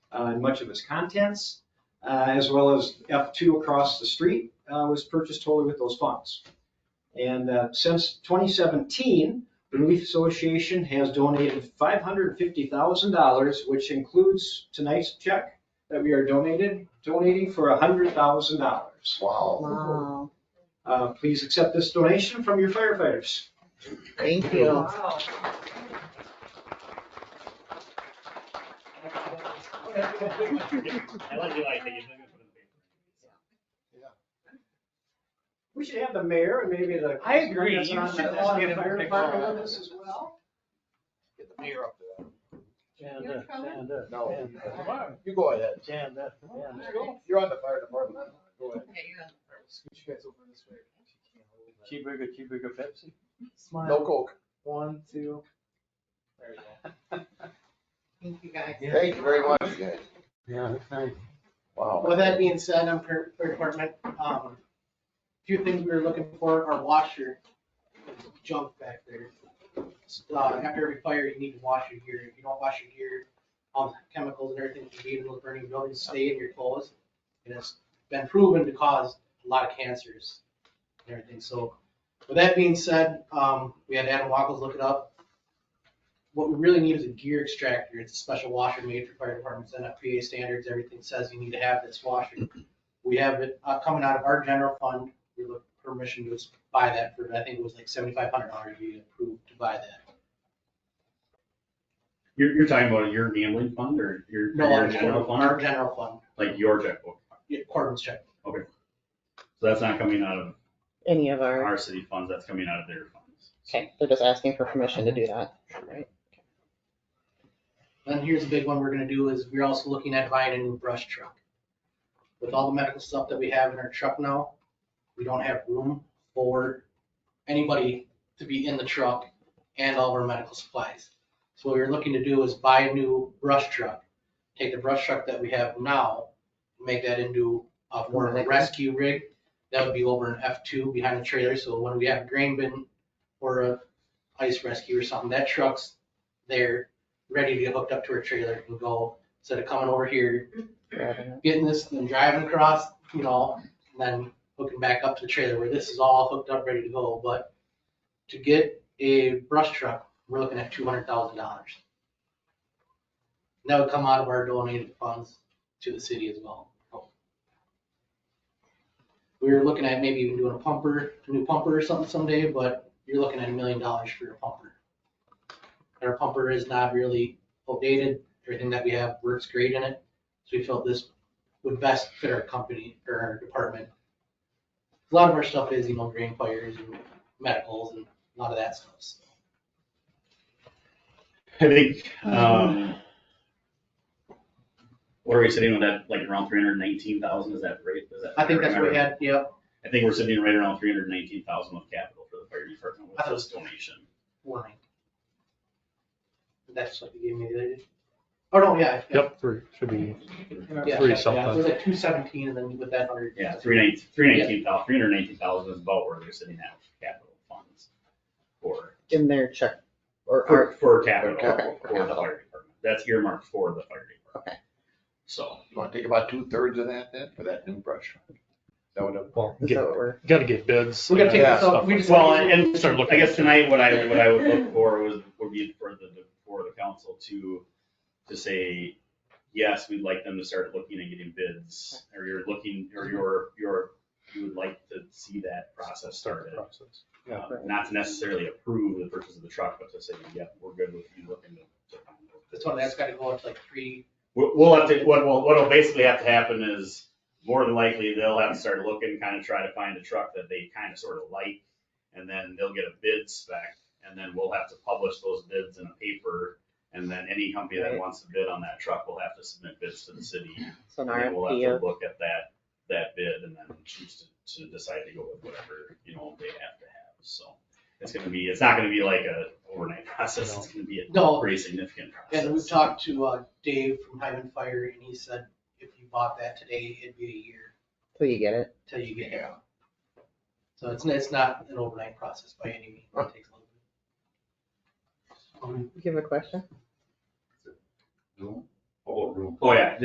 and uh, much of its contents, uh, as well as F2 across the street uh, was purchased totally with those funds. And uh, since 2017, the Relief Association has donated $550,000, which includes tonight's check that we are donated, donating for $100,000. Wow. Wow, Uh, Please accept this donation from your firefighters. thank you. Wow. I like the idea, you're looking for the paper. We should have the mayor and maybe the. I agree. You should On the- just on the get him to fire pick department one. with us as well. Get the mayor up there. Stand You're up, stand up. No. stand up, Come on, You go ahead. Stand up, stand up. You're on the fire department. Go ahead. Scoot you guys over this way. Cheeseburger, cheeseburger, Pepsi. No coke. One, two. There you Thank you guys. go. Thank you very much, guys. Yeah, that's nice. Wow. With that being said, I'm per, per department, um, few things we were looking for, our washer, junk back there. Uh, after every fire, you need to wash your gear, if you don't wash your gear, um, chemicals and everything can be in those burning buildings, stay in your clothes. And it's been proven to cause a lot of cancers and everything, so with that being said, um, we had Adam Wackles look it up. What we really need is a gear extractor. It's a special washer made for fire departments, NFPA standards, everything says you need to have this washer. We have it uh, coming out of our general fund. We look for permission to buy that for, I think it was like seventy-five hundred dollars we approved to buy that. You're, you're talking about your gambling fund or your, No, your our general Our fund, general fund, like your checkbook? yeah, Corbin's check. So that's not coming out of any of our, our city funds, that's coming out of their funds. okay, they're just asking for permission to do that, right? Then here's the big one we're gonna do is we're also looking at buying a new brush truck. With all the medical stuff that we have in our truck now, we don't have room for anybody to be in the truck and all of our medical supplies. So what we're looking to do is buy a new brush truck, take the brush truck that we have now, make that into a more of a rescue rig. That would be over an F two behind the trailer, so when we have grain bin or a ice rescue or something, that truck's there ready to get hooked up to her trailer and go instead of coming over here, Grabbing getting this and driving across, you know, and then hooking back up to the trailer where this is all hooked up, ready to go. But to get a brush truck, we're looking at two hundred thousand dollars. That would come out of our donated funds to the city as well. We were looking at maybe even doing a pumper, a new pumper or something someday, but you're looking at a million dollars for your pumper. Our pumper is not really outdated. Everything that we have works great in it. So we felt this would best fit our company or our department. A lot of our stuff is, you know, green fires and medicals and a lot of that stuff. so. I think, um, what are we sitting with that, like around three hundred nineteen thousand, is that right? Is that- I think that's what we had, yeah. I think we're sitting right around three hundred nineteen thousand of capital for the fire department with I thought it was- this donation. line. That's what you gave me the other day. Oh, no, yeah. yeah, Yep, three, should be, yeah, three yeah, something. It was like two seventeen and then with that hundred. Yeah, three nineteen, three nineteen thousand, three hundred nineteen thousand is about where they're sitting at with capital funds for, In their check, or for, our, for capital, Okay. for the fire department. That's earmarked for the fire department. Okay. So, You wanna take about two thirds of that then for that new brush? truck? That would have. well, is get- that what we're, gotta get bids. We gotta take Yeah, this stuff out, we like just. well, and, and Start looking I guess at- tonight, what I, what I would look for was, would be for the, for the council to, to say, yes, we'd like them to start looking and getting bids, or you're looking, or you're, you're, you would like to see that process started. Process. Uh, Not to necessarily approve the purchase of the truck, but to say, yep, we're good with you looking to. to- This one, that's gotta go up to like three, We'll, we'll have to, what, will what'll basically have to happen is, more than likely, they'll have to start looking, kind of try to find a truck that they kind of sort of like. And then they'll get a bid spec, and then we'll have to publish those bids in a paper. And then any company that Right. wants to bid on that truck will have to submit bids to the city. so an And then we'll have RFP to look at that, that bid and then choose to, to decide to go with whatever, you know, they have to have, so. It's gonna be, it's not gonna be like a overnight process, it's gonna be a No. pretty significant process. and we talked to, uh, Dave from Hyman Fire and he said, if you bought that today, it'd be a year till you get it. till you get it. Yeah. So it's, it's not an overnight process by any means, it takes a little bit. Um, You have a question? Oh, yeah,